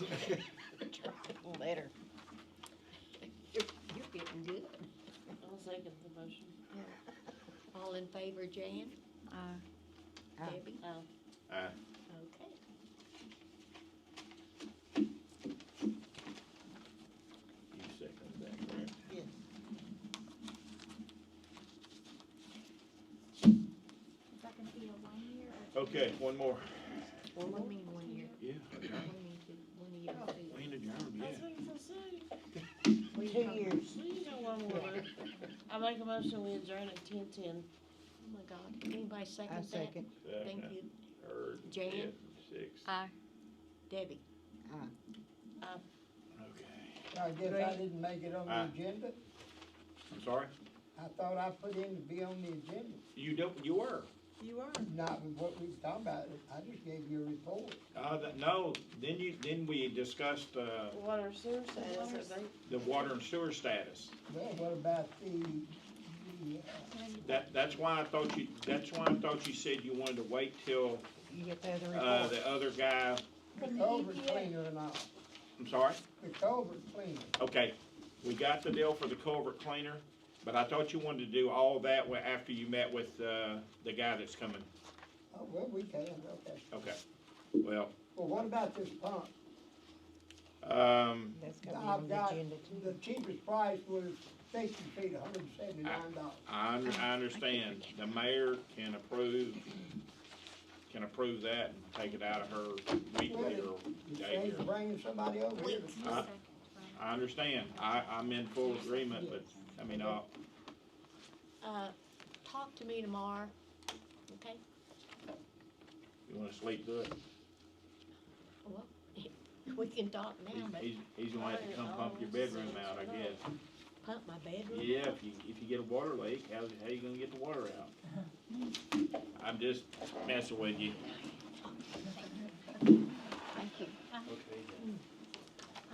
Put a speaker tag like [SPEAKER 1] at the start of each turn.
[SPEAKER 1] favor, Jan?
[SPEAKER 2] Aye.
[SPEAKER 3] Aye.
[SPEAKER 1] Debbie?
[SPEAKER 4] Oh,
[SPEAKER 5] Aye.
[SPEAKER 1] Okay.
[SPEAKER 5] You second that, correct?
[SPEAKER 3] Yes.
[SPEAKER 6] Is that gonna be a one year or? two
[SPEAKER 5] Okay,
[SPEAKER 6] years?
[SPEAKER 5] one more.
[SPEAKER 1] One more meeting, one year.
[SPEAKER 5] Yeah. okay.
[SPEAKER 1] One meeting, one year.
[SPEAKER 5] We ain't adjourned
[SPEAKER 4] I was
[SPEAKER 5] yet.
[SPEAKER 4] looking for Sue.
[SPEAKER 1] We
[SPEAKER 3] Two
[SPEAKER 1] talked-
[SPEAKER 3] years.
[SPEAKER 4] Sue, you know one more. I make a motion, we adjourn at ten ten.
[SPEAKER 1] Oh my God, Can anybody second
[SPEAKER 3] I
[SPEAKER 1] that?
[SPEAKER 3] second.
[SPEAKER 1] Thank you,
[SPEAKER 5] Third,
[SPEAKER 1] Jan?
[SPEAKER 5] fifth, sixth.
[SPEAKER 2] Aye.
[SPEAKER 1] Debbie.
[SPEAKER 3] Aye.
[SPEAKER 5] Okay.
[SPEAKER 3] I guess I didn't make it on
[SPEAKER 5] Aye.
[SPEAKER 3] the agenda.
[SPEAKER 5] I'm sorry?
[SPEAKER 3] I thought I put in to be on the agenda.
[SPEAKER 5] You don't, you were.
[SPEAKER 4] You are.
[SPEAKER 3] Not with what we was talking about. I just gave you a report.
[SPEAKER 5] Uh, that, no, then you, then we discussed, uh,
[SPEAKER 4] Water sewer
[SPEAKER 6] Water
[SPEAKER 4] status, I think.
[SPEAKER 5] the water and sewer status.
[SPEAKER 3] Well, what about the, the, uh,
[SPEAKER 5] That, that's why I thought you, that's why I thought you said you wanted to wait till,
[SPEAKER 3] you get the
[SPEAKER 5] uh,
[SPEAKER 3] other
[SPEAKER 5] the other guy,
[SPEAKER 3] report?
[SPEAKER 6] From
[SPEAKER 3] The
[SPEAKER 6] the
[SPEAKER 3] uh, culvert
[SPEAKER 7] E
[SPEAKER 6] EPA.
[SPEAKER 3] cleaner and all.
[SPEAKER 5] I'm sorry?
[SPEAKER 3] The culvert cleaner.
[SPEAKER 5] Okay, we got the deal for the culvert cleaner, but I thought you wanted to do all that wa- after you met with, uh, the guy that's coming.
[SPEAKER 3] Oh, well, we can, okay.
[SPEAKER 5] Okay, well,
[SPEAKER 3] Well, what about this pump?
[SPEAKER 5] um,
[SPEAKER 7] That's gonna be on
[SPEAKER 3] I've
[SPEAKER 7] the
[SPEAKER 3] got,
[SPEAKER 7] agenda too.
[SPEAKER 3] the cheapest price was fifty feet, hundred and seventy-nine dollars.
[SPEAKER 5] I, un- I understand, the mayor can approve, can approve that and take it out of her weekly or
[SPEAKER 3] You say
[SPEAKER 5] daily.
[SPEAKER 3] you're bringing somebody over here.
[SPEAKER 6] Wait,
[SPEAKER 5] Uh, I understand, I, I'm in full agreement, but, I mean, uh,
[SPEAKER 1] Uh, talk to me tomorrow, okay?
[SPEAKER 5] you wanna sleep through it?
[SPEAKER 1] Well, we can talk now,
[SPEAKER 5] He's-
[SPEAKER 1] but
[SPEAKER 5] He's, he's gonna have to come pump your bedroom out, I guess.
[SPEAKER 1] pump my bedroom.
[SPEAKER 5] Yeah, if you, if you get a water leak, how, how you gonna get the water out? I'm just messing with you.